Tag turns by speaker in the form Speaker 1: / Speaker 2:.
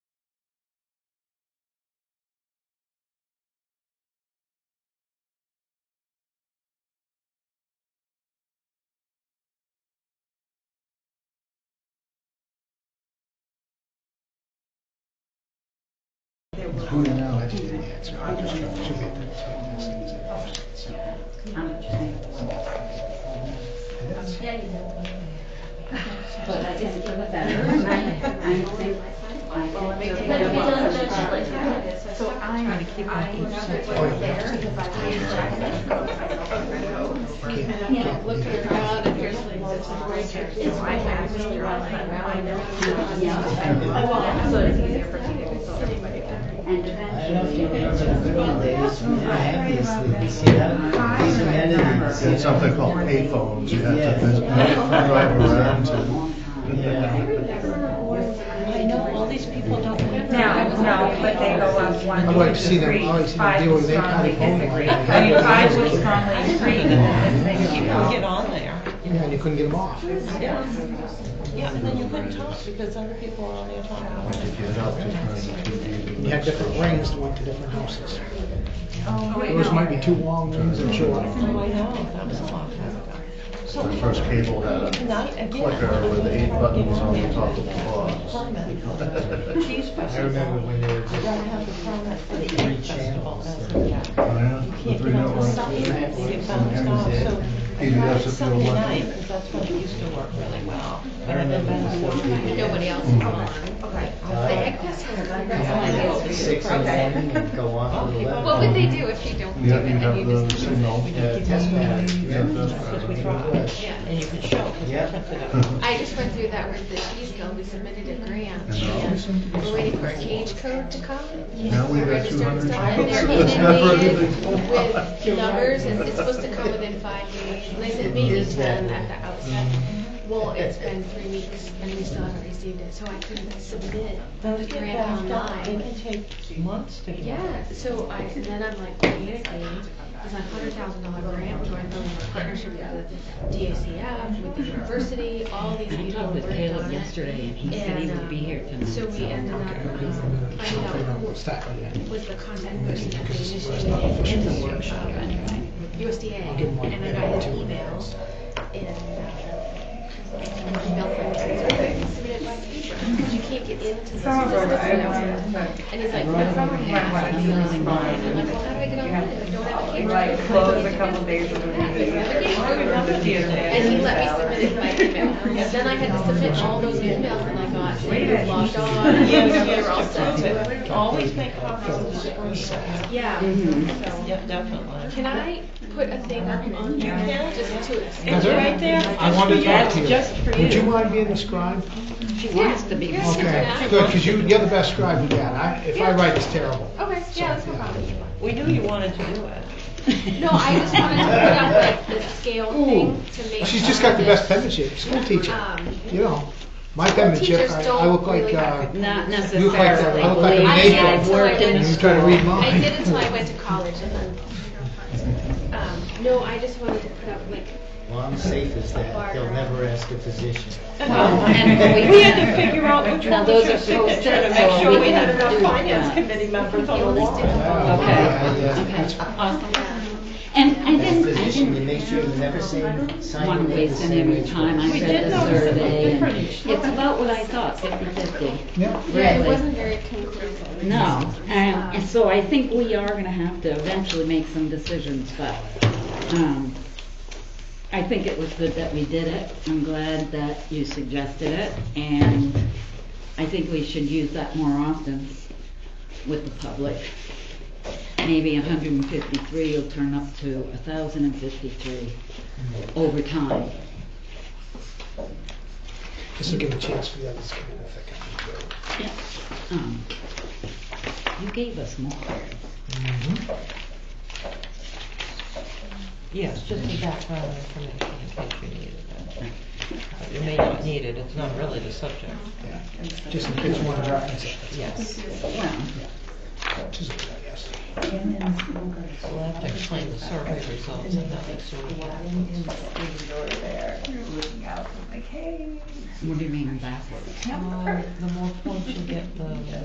Speaker 1: Oh, no, no, I didn't get the answer. I just tried to figure out what this thing is at first. So, it is.
Speaker 2: But I just feel better, and I, I think, I
Speaker 3: it
Speaker 2: feel
Speaker 3: So I'm, I know that
Speaker 1: Oh,
Speaker 3: wasn't
Speaker 1: yeah.
Speaker 3: there because I was checking it.
Speaker 1: Can't-
Speaker 3: And I
Speaker 1: can't
Speaker 3: looked
Speaker 1: leave it.
Speaker 3: around and here's the loads of oranges. So I had really running around.
Speaker 2: better. Yeah,
Speaker 3: So it's easier for me to tell everybody.
Speaker 2: and
Speaker 4: I don't know if you
Speaker 2: eventually.
Speaker 4: guys are good one, ladies, from the ambulance, league. you see that? These amenities.
Speaker 1: It's something called payphones. You have
Speaker 4: Yeah.
Speaker 1: to vis- drive around to.
Speaker 4: Yeah.
Speaker 5: I know all these people don't live
Speaker 6: No, no, but they go up one,
Speaker 1: I'd like to see
Speaker 6: two,
Speaker 1: them-
Speaker 6: three,
Speaker 1: I'd like to see them
Speaker 6: five
Speaker 1: deal
Speaker 6: would
Speaker 1: with that kind
Speaker 6: strongly
Speaker 1: of phone.
Speaker 6: disagree. I mean, five would strongly agree with this thing.
Speaker 5: Get on there.
Speaker 1: Yeah, and you couldn't get them off.
Speaker 5: Yeah. Yeah, and then you couldn't talk because other people were on there talking.
Speaker 1: You had different rings that went to different houses. Those might be two long rings that show up.
Speaker 5: Oh, I know, that was a long time ago. So
Speaker 7: The first cable had
Speaker 5: Not
Speaker 7: a
Speaker 5: again.
Speaker 7: clicker with uh, eight buttons on the top of the
Speaker 5: Permit.
Speaker 7: box.
Speaker 5: These
Speaker 4: I remember
Speaker 5: buses
Speaker 4: when they were just.
Speaker 5: don't have the permit for the Ink festival. that's what happened.
Speaker 7: The
Speaker 5: Can't
Speaker 7: three
Speaker 5: get on the
Speaker 7: networks.
Speaker 5: stop, you get bumped off, so I
Speaker 7: PBS
Speaker 5: tried
Speaker 7: if you
Speaker 5: Sunday
Speaker 7: don't like
Speaker 5: night,
Speaker 7: it.
Speaker 5: because that's when it used to work really well. But I've been back so long.
Speaker 3: Nobody else is on. Okay. The egg pass was on.
Speaker 4: Six in the
Speaker 3: Okay.
Speaker 4: morning and go on till eleven.
Speaker 3: What would they do if you don't do
Speaker 7: Yeah,
Speaker 3: it
Speaker 7: you
Speaker 3: and
Speaker 7: have
Speaker 3: you
Speaker 7: the
Speaker 3: just?
Speaker 7: signal.
Speaker 4: Yeah, test battery.
Speaker 7: Yeah, test
Speaker 5: That's what we
Speaker 7: battery.
Speaker 5: tried, and you could show, because
Speaker 4: Yeah.
Speaker 5: I printed it out.
Speaker 3: I just went through that with the cheese guild, we submitted a grant.
Speaker 7: And now we seem to be-
Speaker 3: We're waiting for a cage code to come.
Speaker 7: Now we've got
Speaker 3: Register
Speaker 7: 200
Speaker 3: and stuff,
Speaker 7: chickens.
Speaker 3: and they're
Speaker 7: That's not
Speaker 3: inundated
Speaker 7: really-
Speaker 3: with numbers, and it's supposed to come within five days, and they said maybe
Speaker 4: Is that-
Speaker 3: ten at the outset. Well, it's been three weeks, and we still haven't received it, so I couldn't submit
Speaker 5: Those
Speaker 3: the
Speaker 5: get
Speaker 3: grant
Speaker 5: backed up, they
Speaker 3: online.
Speaker 5: can take months to get.
Speaker 3: Yeah, so I, and then I'm like, basically, it's a hundred thousand dollar grant, joint development partnership with the DACF, with the university, all these
Speaker 8: I
Speaker 3: people
Speaker 8: talked with
Speaker 3: worked on
Speaker 8: Caleb
Speaker 3: it.
Speaker 8: yesterday and he said he
Speaker 3: And,
Speaker 8: would be
Speaker 3: um,
Speaker 8: here tonight.
Speaker 3: So we ended up um, finding out
Speaker 1: We'll
Speaker 3: who
Speaker 1: start with that.
Speaker 3: was the contact person that they initiated in the workshop anyway, USDA, and I got an email and. um, email from him, submitted my paper, because you can't get into the.
Speaker 6: Some of them, I
Speaker 3: And
Speaker 6: want, but
Speaker 3: he's like, my problem is
Speaker 6: might want to do this
Speaker 3: I'm like, well, how do I get on it? I don't have a camera.
Speaker 6: like close a couple days of the meeting.
Speaker 5: I remember the other day.
Speaker 3: And he let me submit it by email. And then I had to submit all those emails and I got like, logged on. and
Speaker 5: Yes,
Speaker 3: they were all
Speaker 5: yes,
Speaker 3: set.
Speaker 5: that's it. Always make copies of the screen.
Speaker 3: Yeah.
Speaker 2: Mhm.
Speaker 3: So,
Speaker 5: Yep, definitely.
Speaker 3: Can I put a thing up on
Speaker 5: You
Speaker 3: there
Speaker 5: can.
Speaker 3: just to
Speaker 5: It's right there.
Speaker 1: I wanted to talk
Speaker 5: That's
Speaker 1: to you.
Speaker 5: just for
Speaker 1: Would you
Speaker 5: you.
Speaker 1: mind being the scribe?
Speaker 8: She wants to be.
Speaker 3: Yes.
Speaker 1: Okay, good, because you, you're the best scribe you got. I, if I write, it's terrible.
Speaker 3: Okay, yeah, that's no problem.
Speaker 5: We knew you wanted to do it.
Speaker 3: No, I just wanted to put up like the scale thing to make.
Speaker 1: She's just got the best penmanship, school teacher,
Speaker 3: Um,
Speaker 1: you know. My penmanship,
Speaker 3: teachers
Speaker 1: I I
Speaker 3: don't
Speaker 1: look like,
Speaker 3: really have
Speaker 1: uh,
Speaker 3: good
Speaker 8: Not
Speaker 1: you look like,
Speaker 8: necessarily.
Speaker 1: a- I look like a
Speaker 8: believe
Speaker 3: I
Speaker 8: me.
Speaker 3: did
Speaker 1: maid.
Speaker 8: I've
Speaker 3: until I
Speaker 8: worked in
Speaker 3: went.
Speaker 1: You
Speaker 8: this
Speaker 1: try to read
Speaker 8: school.
Speaker 3: I
Speaker 1: mine.
Speaker 3: did until I went to college and then. Um, no, I just wanted to put up like
Speaker 4: Well, I'm safe as that. They'll never ask a physician.
Speaker 8: And
Speaker 5: We had to figure out which
Speaker 8: Now,
Speaker 5: one
Speaker 8: those
Speaker 5: was your
Speaker 8: are posted,
Speaker 5: signature to
Speaker 8: so
Speaker 5: make sure we
Speaker 8: we
Speaker 5: had
Speaker 8: can
Speaker 5: enough
Speaker 8: do
Speaker 5: finance
Speaker 8: that.
Speaker 5: committee members on the wall.
Speaker 1: Yeah, yeah,
Speaker 8: Okay,
Speaker 1: that's-
Speaker 2: And I
Speaker 4: As a
Speaker 2: didn't, I
Speaker 4: physician, you
Speaker 2: didn't
Speaker 4: make sure you never say, sign
Speaker 8: want
Speaker 4: your name
Speaker 8: to
Speaker 4: the
Speaker 8: waste any
Speaker 4: same
Speaker 8: of
Speaker 4: way
Speaker 8: your time. I
Speaker 5: We
Speaker 8: read
Speaker 5: did
Speaker 8: the
Speaker 5: notice some
Speaker 8: survey. and
Speaker 5: difference.
Speaker 8: It's about what I thought, fifty-fifty.
Speaker 1: Yeah.
Speaker 3: Yeah, it
Speaker 8: Really.
Speaker 3: wasn't very conclusive.
Speaker 8: No, and, and so I think we are gonna have to eventually make some decisions, but, um, I think it was good that we did it. I'm glad that you suggested it, and I think we should use that more often with the public. Maybe hundred and fifty-three will turn up to thousand and fifty-three over time.
Speaker 1: This will give a chance for the others to come in if they can.
Speaker 8: Yep. Um, You gave us more.
Speaker 5: Yes, just the background information in case you needed it. But You may not need it, it's not really the subject.
Speaker 1: Just in case one of our, this
Speaker 5: Yes,
Speaker 8: Well,
Speaker 1: is, yes.
Speaker 5: we'll have to explain the survey results and that makes sure we get it.
Speaker 8: what do you mean backwards?
Speaker 5: Uh, The more points you get, the